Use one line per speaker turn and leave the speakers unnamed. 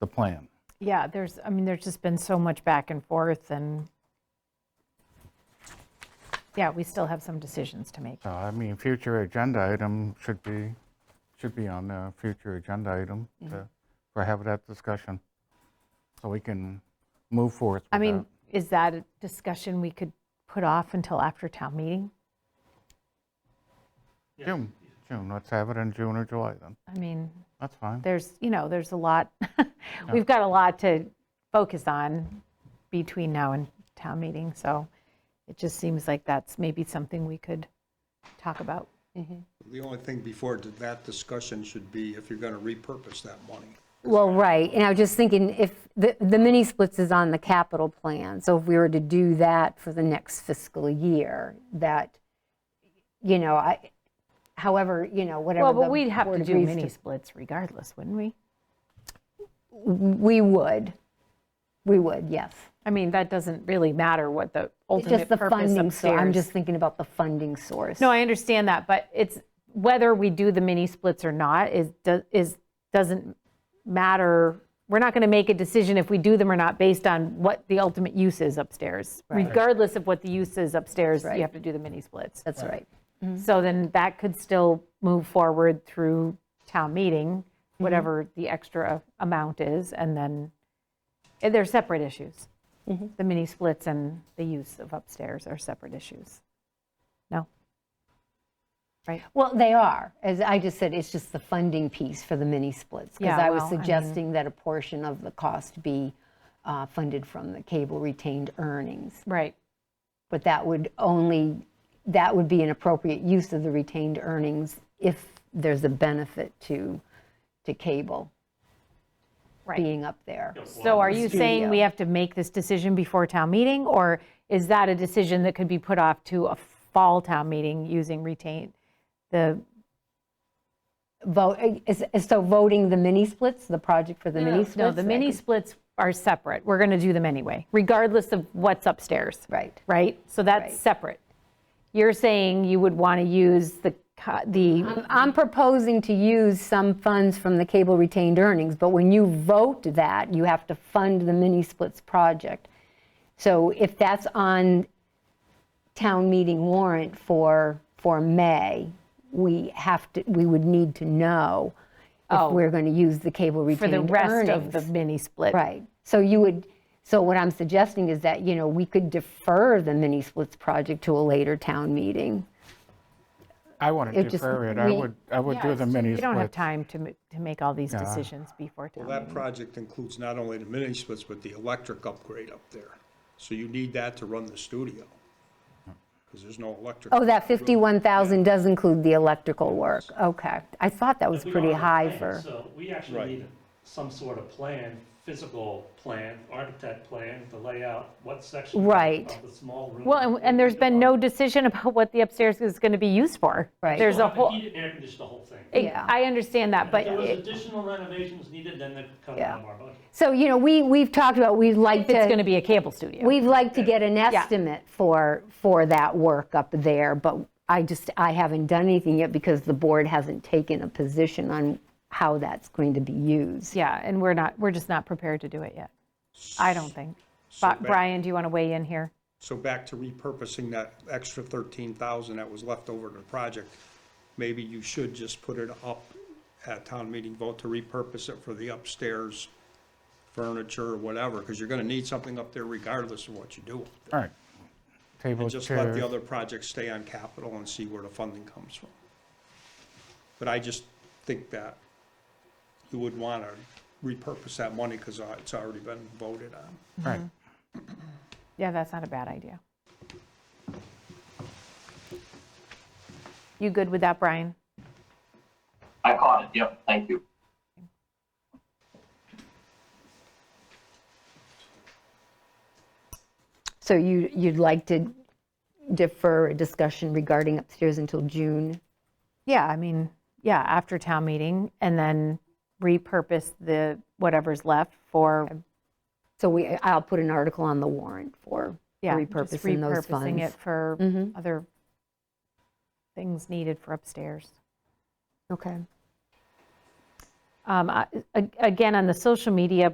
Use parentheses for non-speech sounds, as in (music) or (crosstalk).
the plan.
Yeah, there's, I mean, there's just been so much back and forth and, yeah, we still have some decisions to make.
So, I mean, future agenda item should be, should be on the future agenda item to,
Mm-hmm.
for have that discussion. So we can move forth
I
with
mean,
that.
is that a discussion we could put off until after town meeting?
June, June, let's have it in June or July then.
I mean,
That's fine.
there's, you know, there's a lot, (laughs) we've got a lot to focus on between now and town meeting, so it just seems like that's maybe something we could talk about.
The only thing before that discussion should be if you're going to repurpose that money.
Well, right, and I was just thinking, if, the the mini splits is on the capital plan, so if we were to do that for the next fiscal year, that, you know, I, however, you know, whatever.
Well, but
the
we'd have to
board
do
agrees
mini splits regardless, wouldn't we?
We would, we would, yes.
I mean, that doesn't really matter what the
It's
ultimate
just the
purpose
funding, so I'm
upstairs.
just thinking about the funding source.
No, I understand that, but it's, whether we do the mini splits or not is, do- is, doesn't matter. We're not going to make a decision if we do them or not based on what the ultimate use is upstairs. Regardless of what the use is upstairs, you have to do the mini splits.
That's right.
So then that could still move forward through town meeting, whatever the extra amount is, and then, eh, they're separate issues. The mini splits and the use of upstairs are separate issues. No? Right?
Well, they are, as I just said, it's just the funding piece for the mini splits.
Yeah,
Because I was
well, I mean-
suggesting that a portion of the cost be uh, funded from the cable retained earnings.
Right.
But that would only, that would be an appropriate use of the retained earnings if there's a benefit to, to cable
Right.
being up there.
So are you saying we have to make this decision before town meeting? Or is that a decision that could be put off to a fall town meeting using retain, the,
Vote, is- is- so voting the mini splits, the project for the mini splits?
no, the
that
mini
could-
splits are separate. We're going to do them anyway, regardless of what's upstairs.
Right.
Right? So that's
Right.
separate. You're saying you would want to use the, co- the,
Um, I'm proposing to use some funds from the cable retained earnings, but when you vote that, you have to fund the mini splits project. So if that's on town meeting warrant for, for May, we have to, we would need to know
Oh.
if we're going to use the cable
for
retained
the
earnings.
rest of the mini split.
Right. So you would, so what I'm suggesting is that, you know, we could defer the mini splits project to a later town meeting.
I want to
It just-
defer it. I
we-
would, I would
Yeah,
do
it's
the
just-
mini
We don't have
splits.
time to, m- to make all these decisions before town
Well,
meeting.
that project includes not only the mini splits, but the electric upgrade up there. So you need that to run the studio, because there's no electric.
Oh, that 51,000 does include the electrical work, okay. I thought that was
We
pretty
don't have a
high
plan,
for,
So we actually
Right.
need some sort of plan, physical plan, architect plan to lay out what section of-
Right.
of the small room.
Well, and- and there's been no decision about what the upstairs is going to be used for.
Right.
There's a
Well,
whole,
He didn't air condition the whole thing.
I
Yeah.
I understand that, but
If there was
it-
additional renovations needed, then they'd come
Yeah.
out of our budget.
so, you know, we, we've talked about, we'd like
if it's going to
to,
be a cable studio.
we'd like to get an estimate for, for that work up there, but I just, I haven't done anything yet because the board hasn't taken a position on how that's going to be used.
Yeah, and we're not, we're just not prepared to do it yet. I don't think. But
back-
Brian, do you want to weigh in here?
So back to repurposing that extra 13,000 that was left over to the project, maybe you should just put it up at town meeting vote to repurpose it for the upstairs furniture or whatever, because you're going to need something up there regardless of what you do.
All right. Table
And just let
chairs.
the other projects stay on capital and see where the funding comes from. But I just think that you would want to repurpose that money because it's already been voted on.
Right.
Yeah, that's not a bad idea. You good with that, Brian?
I caught it. Yep. Thank you.
So you, you'd like to defer a discussion regarding upstairs until June?
Yeah, I mean, yeah, after town meeting and then repurpose the, whatever's left for,
So we, I'll put an article on the warrant for
yeah, just
repurposing those
repurposing
funds.
it for other things needed for upstairs.
Okay.
Um, I- a- Again, on the social media